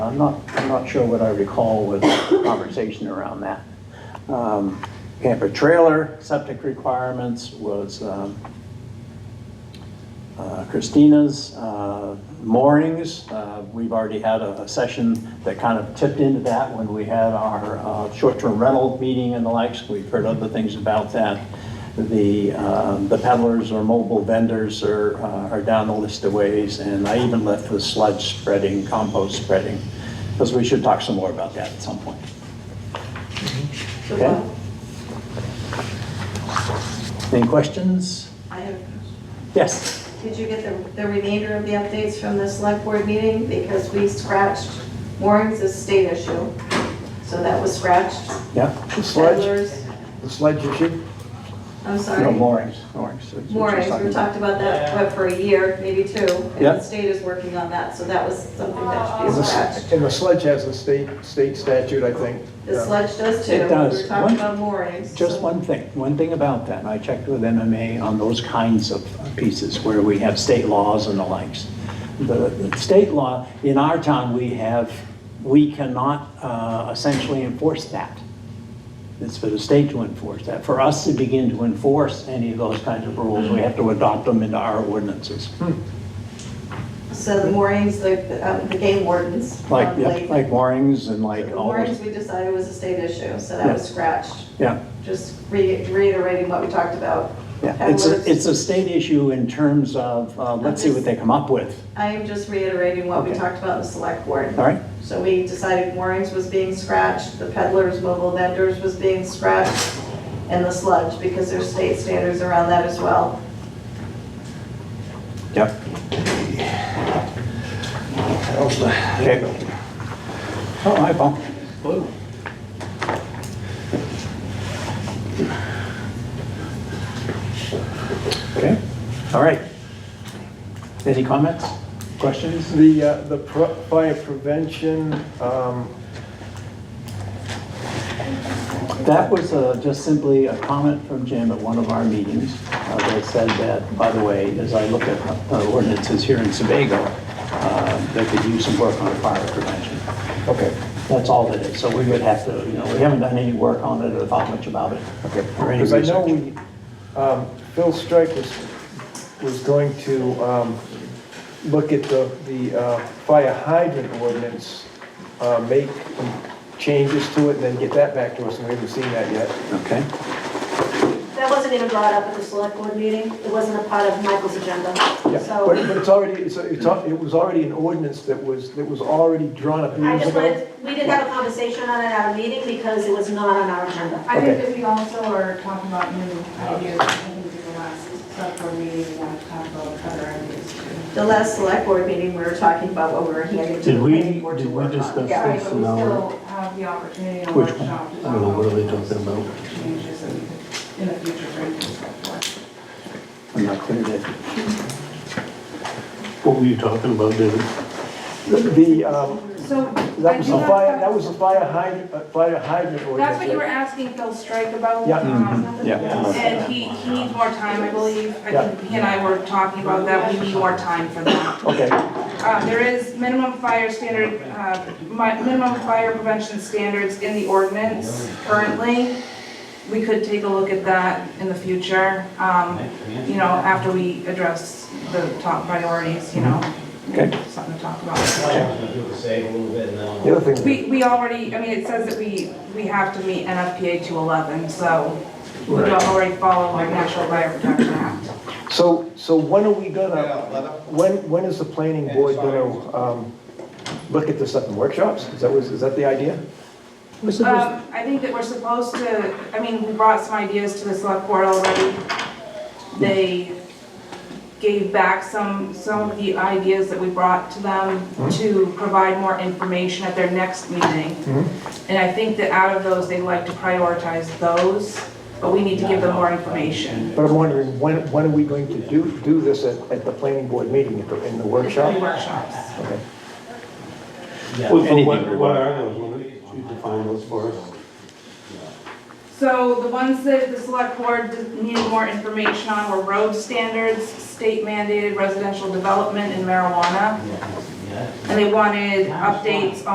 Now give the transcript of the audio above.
I'm not, I'm not sure what I recall was the conversation around that. Um, Camper trailer, septic requirements was um, uh, Christina's, uh, moorings. uh, We've already had a a session that kind of tipped into that when we had our uh, short-term rental meeting and the likes. We've heard other things about that. The um, the peddlers or mobile vendors are uh, are down the list of ways, and I even left the sludge spreading, compost spreading, because we should talk some more about that at some point. uh, Okay? Any questions? I have, Yes? did you get the, the remainder of the updates from the select board meeting? Because we scratched, moorings is state issue, so that was scratched. Yeah. The Peddlers, the sledge issue? I'm No, sorry, moorings, moorings. that's what she's moorings, talking we about. talked about that, what, for a year, maybe two. And Yeah. the state is working on that, so that was something that And should be the- scratched. and the sledge has a state, state statute, I think. The sledge does too. It does. We were talking One- about moorings. Just so- one thing, one thing about that, I checked with MMA on those kinds of pieces where we have state laws and the likes. The the state law, in our town, we have, we cannot uh, essentially enforce that. It's for the state to enforce that. For us to begin to enforce any of those kinds of rules, we have to adopt them into our ordinances. So the moorings, the, um, the game wardens. Like, um, yeah, like- like moorings and like The all moorings, those, we decided was a state issue, so Yeah. that was scratched. yeah. just re- reiterating what we talked about. Yeah, it's a, Peddlers. it's a state issue in terms of, uh, let's see what they come up with, I am just reiterating what we Okay. talked about in the select board. all right? So we decided moorings was being scratched, the peddlers, mobile vendors was being scratched, and the sludge, because there's state standards around that as well. Yep. Okay. Oh, hi, Paul. Okay, all right. Any comments, questions? The, uh, the pro- fire prevention, um, That was uh, just simply a comment from Jim at one of our meetings uh, that said that, by the way, as I look at uh, ordinances here in Sebago, uh, they could use some work on fire prevention. okay, That's all that is. So we would have to, you know, we haven't done any work on it or thought much about it. okay. Or any Because I know research. we, um, Phil Strike was, was going to, um, look at the, the, uh, fire hydrant ordinance, uh, make changes to it and then get that back to us, and we haven't seen that yet. Okay, That wasn't even brought up at the select board meeting. It wasn't a part of Michael's agenda. Yeah, but, So but it's already, it's, it's, al- it was already an ordinance that was, that was already drawn up I years just ago. wanted, we did have a conversation on it at a meeting because it was not on our agenda. I think that we also are talking about new ideas, I think we did the last select board meeting, we want to talk about other ideas too. The last select board meeting, we were talking about what we were handing to the Did we- planning board to did we work on. discuss- Yeah, right, Fix but we now. still have the opportunity on Which one? workshop. to I don't know, what are they talk talking about? Changes that we could, in the future, bring to the select board. I'm not clear yet. What were you talking about, David? The, um, So. I that was do the have fire, some- that was the fire hydrant, uh, fire hydrant ordinance. That's what you were asking Phil Strike about. Yeah. um, Mm-hmm. Yeah. And he, he needs more time, I believe. Yeah. I think he and I were talking about that, we need more time for that. Okay, Uh, There is minimum fire standard, uh, mi- minimum fire prevention standards in the ordinance currently. We could take a look at that in the future, um, you know, after we address the top priorities, you know. Okay. Something to talk about. Save a little bit and then. I'll- the other thing, We, we already, I mean, it says that we, we have to meet NFPA 211, so we Right. already follow our National Fire Protection Act. so, so when are we Yeah, gonna, let up. when, when is the planning board gonna, um, look at this up in workshops? Is that, was, is that the idea? Um, I think that we're supposed to, I mean, we brought some ideas to the select board already. They gave back some, some of the ideas that we brought to them to provide more information at their next meeting. Mhm. And I think that out of those, they'd like to prioritize those, but we need to give them more information. But I'm wondering, when, when are we going to do, do this at, at the planning board meeting, at the, in the workshop? Three workshops. Okay. Well, so anything what, we what want. are those, what are- you define those for us? So the ones that the select board needed more information on were road standards, state mandated residential development and marijuana. And they wanted updates